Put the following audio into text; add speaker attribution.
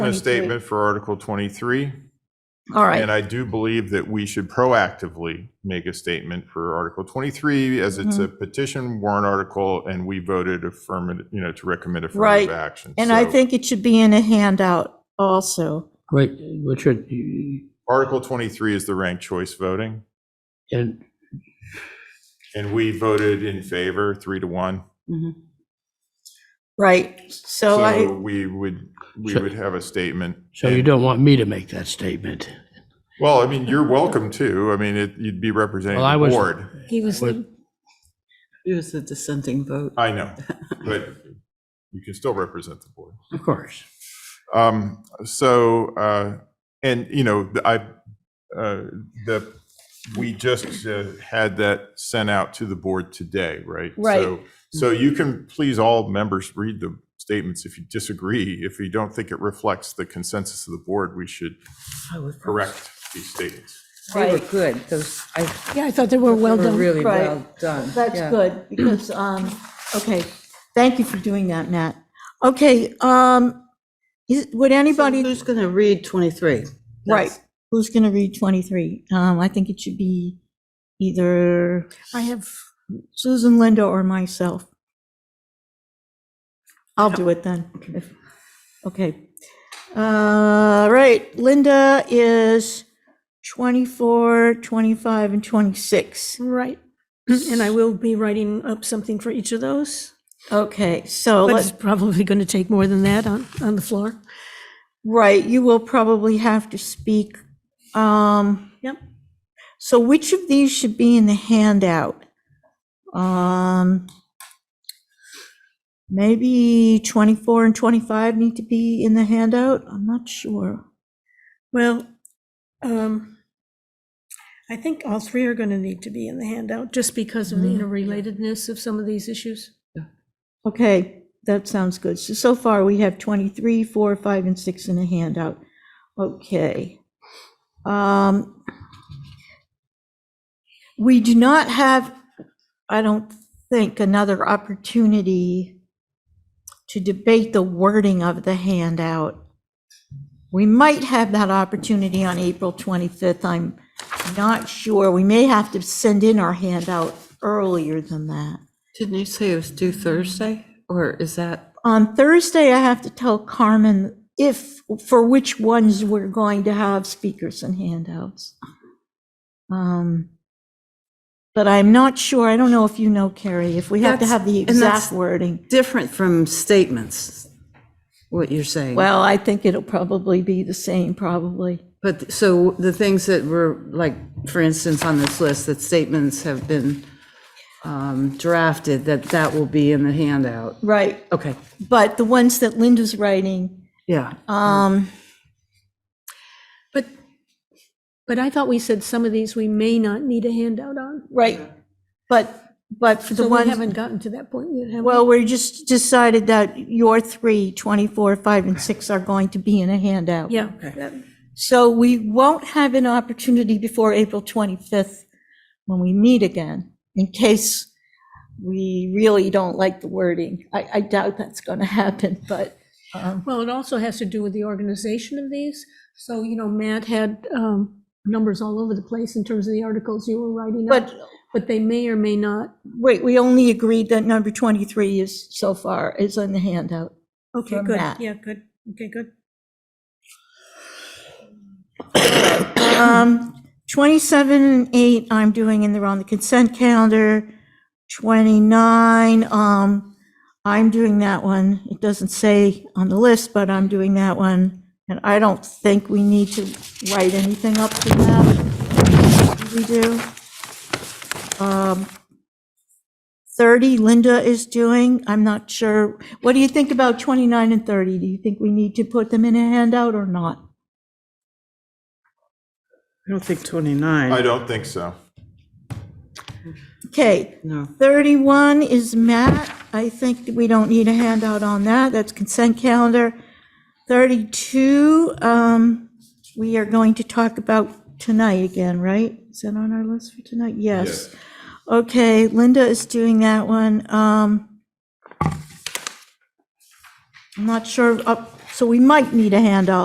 Speaker 1: a
Speaker 2: 23.
Speaker 1: statement for Article 23,
Speaker 2: All right.
Speaker 1: and I do believe that we should proactively make a statement for Article 23, as it's a
Speaker 2: Mm-hmm.
Speaker 1: petition warrant article, and we voted affirmative, you know, to recommend
Speaker 2: Right.
Speaker 1: affirmative action.
Speaker 2: And I
Speaker 1: So
Speaker 2: think it should be in a handout also.
Speaker 3: Wait, Richard, you-
Speaker 1: Article 23 is the ranked choice voting,
Speaker 3: and
Speaker 1: and we voted in favor, three to one.
Speaker 4: Mm-hmm.
Speaker 2: Right. So
Speaker 1: So
Speaker 2: I,
Speaker 1: we would, we
Speaker 3: So-
Speaker 1: would have a statement.
Speaker 3: so you
Speaker 1: And-
Speaker 3: don't want me to make that statement?
Speaker 1: Well, I mean, you're welcome to. I mean, it- you'd be representing
Speaker 3: Well, I
Speaker 1: the
Speaker 3: was-
Speaker 1: board.
Speaker 4: He was,
Speaker 3: What-
Speaker 4: the- he was the dissenting vote.
Speaker 1: I know, but you can still represent the board.
Speaker 3: Of course.
Speaker 1: Um, so, uh, and, you know, the- I, uh, the, we just uh, had that sent out to the board today, right?
Speaker 2: Right.
Speaker 1: So- So you can, please, all members, read the statements if you disagree. If you don't think it reflects the consensus of the board, we should correct these statements.
Speaker 4: They were
Speaker 2: Right.
Speaker 4: good, those, I, they
Speaker 5: Yeah, I thought they were well
Speaker 4: were
Speaker 5: done.
Speaker 4: really
Speaker 2: Right.
Speaker 4: well done.
Speaker 2: that's
Speaker 4: yeah.
Speaker 2: good because, um, okay, thank you for doing that, Matt. Okay, um, is, would
Speaker 6: Anybody
Speaker 2: anybody,
Speaker 6: who's going to read 23?
Speaker 2: right, who's going to read 23? Um, I think it should be either
Speaker 5: I have,
Speaker 2: Susan, Linda, or myself. I'll do it then. if- Okay. All right, Linda is 24, 25, and 26.
Speaker 5: right, and I will be writing up something for each of those,
Speaker 2: Okay, so,
Speaker 5: but it's
Speaker 2: let's
Speaker 5: probably going to take more than that on, on the floor.
Speaker 2: right, you will probably have to speak. Um,
Speaker 5: Yep.
Speaker 2: So which of these should be in the handout? Um, Maybe 24 and 25 need to be in the handout? I'm not sure.
Speaker 5: Well, um, I think all three are going to need to be in the handout, just because of the
Speaker 2: Mm-hmm.
Speaker 5: interrelatedness of some of these issues.
Speaker 2: Okay, that sounds good. So, so far, we have 23, 4, 5, and 6 in a handout. Okay. Um, We do not have, I don't think, another opportunity to debate the wording of the handout. We might have that opportunity on April 25th. I'm not sure. We may have to send in our handout earlier than that.
Speaker 4: Didn't you say it was due Thursday, or is that?
Speaker 2: On Thursday, I have to tell Carmen if, for which ones we're going to have speakers and handouts. Um, But I'm not sure, I don't know if you know, Carrie, if we have to
Speaker 4: That's-
Speaker 2: have the
Speaker 4: and that's-
Speaker 2: exact wording.
Speaker 6: Different from statements, what you're saying.
Speaker 2: Well, I think it'll probably be the same, probably.
Speaker 4: But, so the things that were, like, for instance, on this list, that statements have been um, drafted, that that will be in the handout.
Speaker 2: Right.
Speaker 4: Okay,
Speaker 2: But the ones that Linda's writing,
Speaker 4: yeah.
Speaker 2: um,
Speaker 5: But, but I thought we said some of these we may not need a handout on.
Speaker 2: right, but, but for
Speaker 5: So
Speaker 2: the
Speaker 5: we
Speaker 2: ones,
Speaker 5: haven't gotten to that point yet, have we?
Speaker 2: well, we just decided that your three, 24, 5, and 6 are going to be in a handout.
Speaker 5: Yeah, that-
Speaker 2: So we won't have an opportunity before April 25th when we meet again, in case we really don't like the wording. I, I doubt that's going to happen, but, um,
Speaker 5: Well, it also has to do with the organization of these. So, you know, Matt had um, numbers all over the place in terms of the articles you were writing up,
Speaker 2: but,
Speaker 5: but they may or may not.
Speaker 2: wait, we only agreed that number 23 is, so far, is on the handout.
Speaker 5: Okay,
Speaker 2: From
Speaker 5: good.
Speaker 2: Matt.
Speaker 5: Yeah, good. Okay, good.
Speaker 2: Um, 27 and 8, I'm doing in the, on the consent calendar. 29, um, I'm doing that one. It doesn't say on the list, but I'm doing that one. And I don't think we need to write anything up to that. Do We do. Um, 30, Linda is doing. I'm not sure. What do you think about 29 and 30? Do you think we need to put them in a handout or not?
Speaker 6: I don't think
Speaker 1: I
Speaker 6: 29.
Speaker 1: don't think so.
Speaker 2: Okay,
Speaker 6: No.
Speaker 2: 31 is Matt. I think that we don't need a handout on that. That's consent calendar. 32, um, we are going to talk about tonight again, right? Is that on our list for tonight? Yes. Okay, Linda is doing that one. Um, I'm not sure, up, So we might need a handout